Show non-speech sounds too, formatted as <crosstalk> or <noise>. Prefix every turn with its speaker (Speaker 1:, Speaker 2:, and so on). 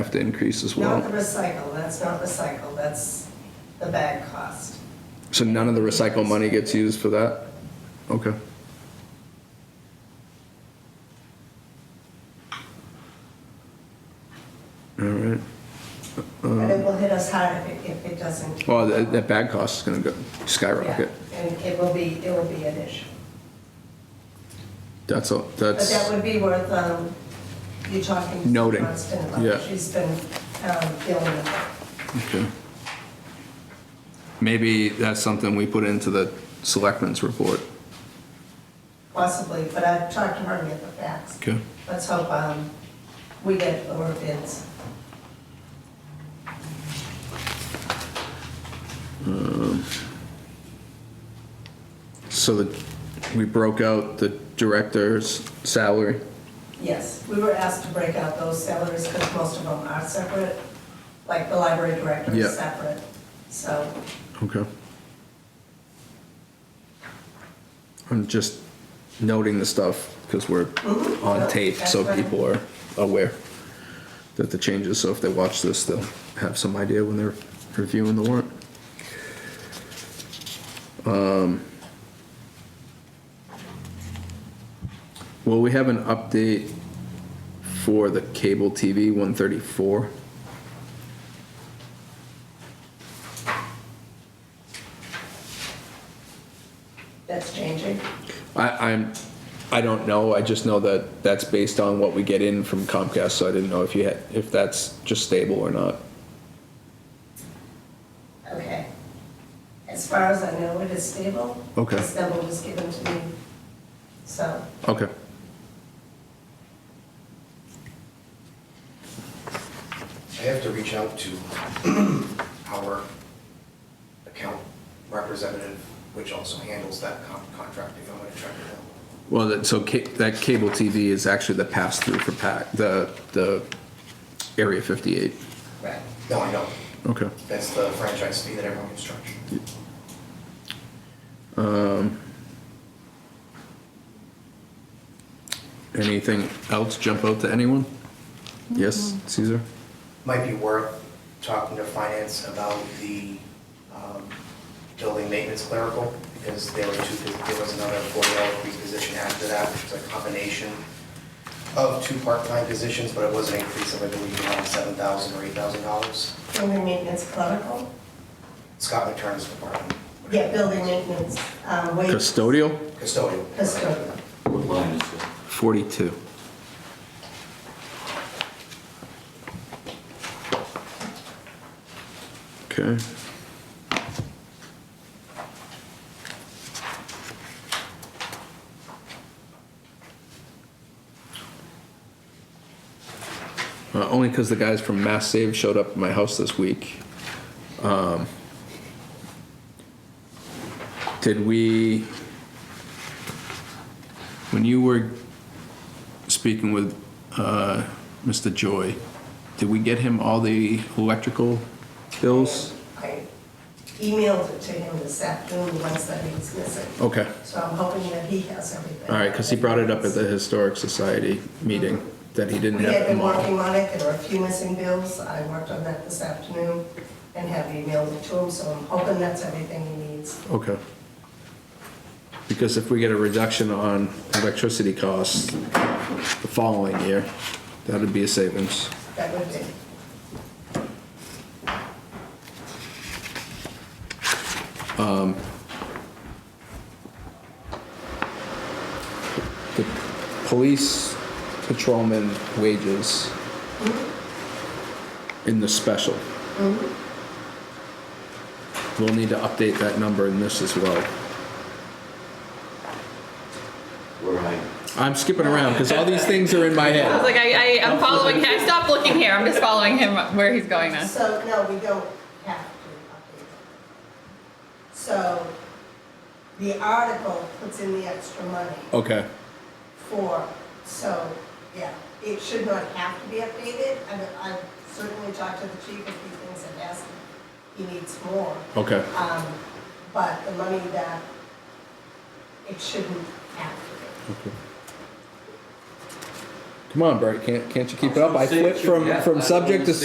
Speaker 1: have to increase as
Speaker 2: Not
Speaker 1: well.
Speaker 2: the recycle, that's not recycle, that's the bag cost.
Speaker 1: So none of the recycle money gets used for that? Okay. All right.
Speaker 2: But it will hit us hard if it, if it doesn't.
Speaker 1: Uh-huh. Well, that, that bag cost is gonna go skyrocket.
Speaker 2: Yeah, And it will be, it will be an issue.
Speaker 1: That's, all.
Speaker 2: But
Speaker 1: that's,
Speaker 2: that would be worth, um, you talking to
Speaker 1: Noting,
Speaker 2: Kristen about.
Speaker 1: yeah.
Speaker 2: She's been, um, dealing with it.
Speaker 1: okay. Maybe that's something we put into the selectmen's report.
Speaker 2: possibly, but I've talked to her and get the facts.
Speaker 1: Okay.
Speaker 2: Let's hope, um, we get lower bids.
Speaker 1: So that, we broke out the director's salary.
Speaker 2: Yes, we were asked to break out those salaries because most of them are separate, like the library director
Speaker 1: Yeah.
Speaker 2: is separate. So,
Speaker 1: Okay. I'm just noting the stuff because we're
Speaker 2: Mhm.
Speaker 1: on tape, so
Speaker 2: That's fine.
Speaker 1: people are aware that the changes, so if they watch this, they'll have some idea when they're reviewing the warrant. Um, Will we have an update for the cable TV 134?
Speaker 2: that's changing.
Speaker 1: I, I'm, I don't know. I just know that that's based on what we get in from Comcast. So I didn't know if you had, if that's just stable or not.
Speaker 2: Okay. As far as I know, it is stable.
Speaker 1: Okay.
Speaker 2: This number was given to me, so.
Speaker 1: Okay.
Speaker 3: I have to reach out to <clears throat> our account representative, which also handles that con- contract if I'm gonna track it down.
Speaker 1: Well, that, so ca- that cable TV is actually the pass through for pack the the Area 58.
Speaker 2: Right.
Speaker 3: No, I know.
Speaker 1: Okay.
Speaker 3: That's the franchise fee that everyone gets charged.
Speaker 1: Um, anything else jump out to anyone? Yes, Caesar.
Speaker 3: Might be worth talking to finance about the um, building maintenance clerical, because there were two, there was another forty dollar increase position after that, which was a combination of two part-time positions, but it was an increase of, I believe, around seven thousand or eight thousand dollars.
Speaker 2: Building maintenance clerical?
Speaker 3: Scott McTurner's department.
Speaker 2: Yeah, building maintenance, um, wait.
Speaker 1: Custodial
Speaker 3: Custodial.
Speaker 2: Custodial.
Speaker 4: What line is it?
Speaker 1: 42. Okay. Uh, only because the guys from Mass Save showed up at my house this week. Um, did we, when you were speaking with uh, Mr. Joy, did we get him all the electrical bills?
Speaker 2: I emailed it to him this afternoon, the ones that he was missing.
Speaker 1: Okay.
Speaker 2: So I'm hoping that he has everything.
Speaker 1: All right, because he brought it up at the Historic Society meeting that he didn't
Speaker 2: We
Speaker 1: have
Speaker 2: had been
Speaker 1: them all.
Speaker 2: working on it, there were a few missing bills, I worked on that this afternoon and have emailed it to him, so I'm hoping that's everything he needs.
Speaker 1: Okay. Because if we get a reduction on electricity costs the following year, that'd be a savings.
Speaker 2: That would be,
Speaker 1: The police patrolman wages in the special. We'll need to update that number in this as well.
Speaker 4: Where I,
Speaker 1: I'm skipping around because all these things are in my
Speaker 5: I was
Speaker 1: head.
Speaker 5: like, I, I, I'm following him. I stopped looking here. I'm just following him where he's going now.
Speaker 2: so, no, we don't have to update it. So, the article puts in the extra money
Speaker 1: Okay,
Speaker 2: for, so, yeah, it should not have to be updated. I mean, I've certainly talked to the chief if he thinks it has, he needs more.
Speaker 1: okay,
Speaker 2: Um, but the money that, it shouldn't have to be.
Speaker 1: Come on, Bert, can't, can't you keep it up? I
Speaker 4: Say it,
Speaker 1: flipped from,
Speaker 4: yeah,
Speaker 1: from
Speaker 4: I
Speaker 1: subject to
Speaker 4: understand.